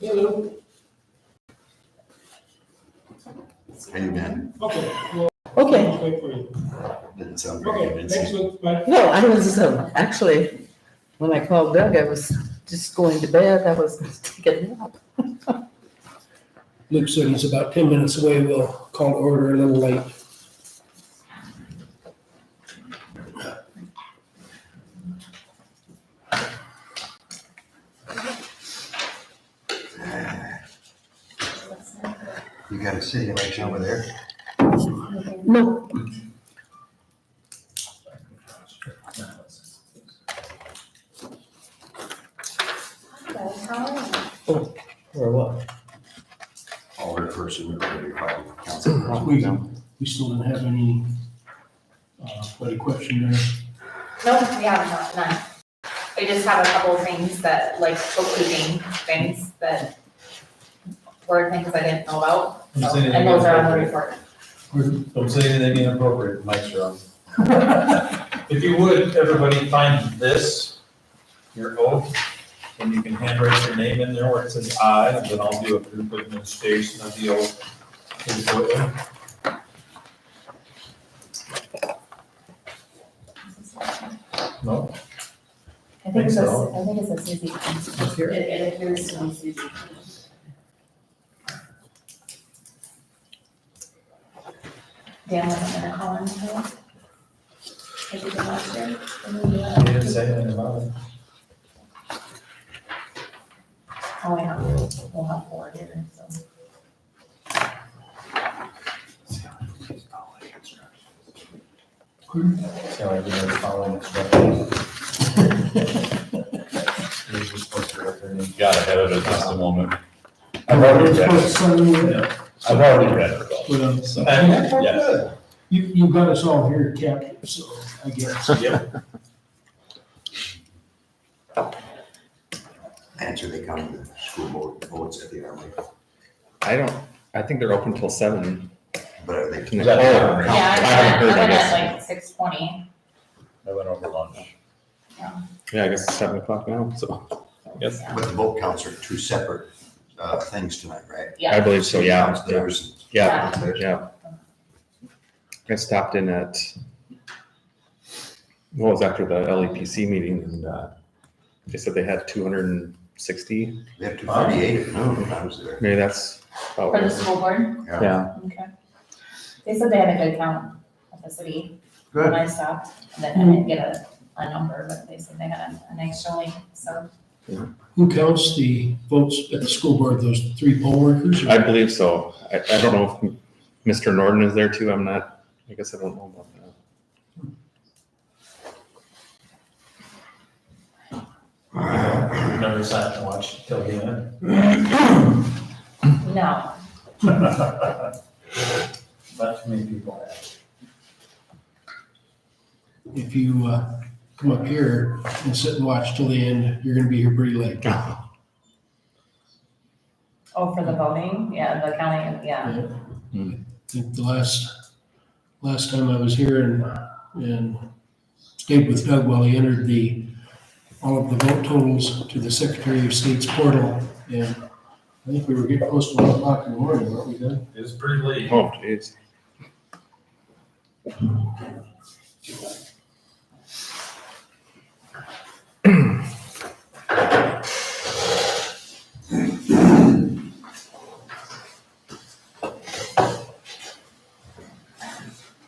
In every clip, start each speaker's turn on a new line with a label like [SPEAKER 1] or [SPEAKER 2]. [SPEAKER 1] Hello.
[SPEAKER 2] How you been?
[SPEAKER 1] Okay.
[SPEAKER 3] Okay,
[SPEAKER 1] Wait for you.
[SPEAKER 2] Didn't sound very
[SPEAKER 1] Okay, next
[SPEAKER 2] convincing.
[SPEAKER 1] one, bye.
[SPEAKER 3] no, I was, um, actually, when I called Doug, I was just going to bed, I was taking a nap.
[SPEAKER 4] Luke said he's about ten minutes away. We'll call to order a little late.
[SPEAKER 2] You got a city election over there?
[SPEAKER 3] No,
[SPEAKER 4] Or what?
[SPEAKER 2] All her person, everybody, probably council person.
[SPEAKER 4] We, we still didn't have any, uh, bloody question there.
[SPEAKER 5] No, we have not, none. We just have a couple of things that, like bookkeeping things that were things I didn't know about.
[SPEAKER 6] Don't
[SPEAKER 5] so-
[SPEAKER 6] say anything
[SPEAKER 5] And those are on the
[SPEAKER 6] inappropriate.
[SPEAKER 5] report.
[SPEAKER 6] Don't say anything inappropriate, Mike's wrong. If you would, everybody find this, your oath, and you can handwrite your name in there where it says I, and then I'll do a group administration of the oath. Please go in. No,
[SPEAKER 5] I
[SPEAKER 6] think it's a- So-
[SPEAKER 5] I think it's a Susie.
[SPEAKER 6] Up here?
[SPEAKER 5] It, it appears to be Susie. Dan wasn't gonna call in today. Like he did last year. Didn't he do that?
[SPEAKER 6] you didn't say anything about it.
[SPEAKER 5] Oh, yeah, we'll have four here, so.
[SPEAKER 6] So everybody's following instructions. You're just supposed to write their name.
[SPEAKER 7] Got ahead of it just a moment. I've already read it.
[SPEAKER 4] You,
[SPEAKER 7] I've already read it. though.
[SPEAKER 6] And, yes.
[SPEAKER 4] you got us all here captive, so I guess.
[SPEAKER 2] Answer they come to the school board votes at the hourly,
[SPEAKER 8] I don't, I think they're open till seven.
[SPEAKER 2] but are they?
[SPEAKER 8] Is that-
[SPEAKER 2] Oh,
[SPEAKER 5] Yeah,
[SPEAKER 8] I haven't
[SPEAKER 5] I
[SPEAKER 8] heard, I
[SPEAKER 5] am at
[SPEAKER 8] guess.
[SPEAKER 5] like six twenty.
[SPEAKER 7] I went over lunch.
[SPEAKER 8] Yeah, I guess it's seven o'clock now, so. Yes.
[SPEAKER 2] But the vote counts are two separate, uh, things tonight, right?
[SPEAKER 8] I believe so, yeah,
[SPEAKER 2] Counts
[SPEAKER 8] yeah,
[SPEAKER 2] theirs.
[SPEAKER 8] yeah,
[SPEAKER 5] Yeah.
[SPEAKER 8] yeah. I stopped in at, well, it was after the LEPC meeting and, uh, they said they had two hundred and sixty,
[SPEAKER 2] They have two thirty-eight, no, I was there.
[SPEAKER 8] maybe that's. about
[SPEAKER 5] For the
[SPEAKER 8] right.
[SPEAKER 5] school board,
[SPEAKER 8] Yeah,
[SPEAKER 5] okay. They said they had a good count at the city
[SPEAKER 2] Good.
[SPEAKER 5] when I stopped, and then I didn't get a, a number, but they said they had a- an extra link, so.
[SPEAKER 4] Who counts the votes at the school board, those three poll workers?
[SPEAKER 8] I believe so. I, I don't know if Mr. Norton is there too. I'm not, I guess I don't know about that.
[SPEAKER 6] Never sat and watched till the end.
[SPEAKER 5] No,
[SPEAKER 6] Not too many people have.
[SPEAKER 4] If you, uh, come up here and sit and watch till the end, you're gonna be here pretty late.
[SPEAKER 5] oh, for the voting, yeah, the counting, yeah.
[SPEAKER 4] think the last, last time I was here and, and stayed with Doug while he entered the, all of the vote totals to the Secretary of State's portal. And I think we were getting close to one o'clock in the morning, weren't we, Doug?
[SPEAKER 6] It's pretty late.
[SPEAKER 8] Oh, jeez.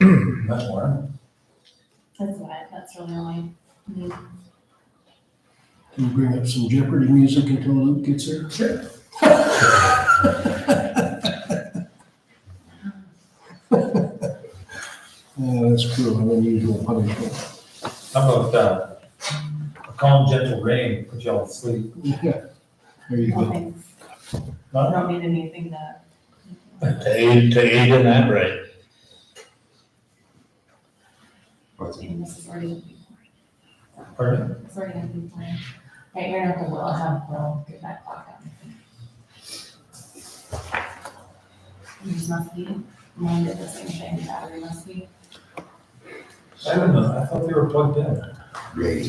[SPEAKER 6] That's one.
[SPEAKER 5] That's why, that's really only.
[SPEAKER 4] Can you bring up some Jeopardy music until Luke gets here? Uh, Oh, that's cruel, an unusual punishment.
[SPEAKER 6] How about, uh, a calm, gentle rain, put y'all to sleep?
[SPEAKER 4] Yeah, there you go.
[SPEAKER 5] Nothing, I
[SPEAKER 6] Huh?
[SPEAKER 5] don't need anything that,
[SPEAKER 7] To aid, to aid in that, right?
[SPEAKER 2] What's-
[SPEAKER 5] maybe this is already,
[SPEAKER 6] Pardon?
[SPEAKER 5] it's already gonna be planned. Right, you're not the will, I have will, get that clock out. Yours must be, mine did the same thing, battery must be.
[SPEAKER 6] I don't know, I thought they were plugged in.
[SPEAKER 2] Great.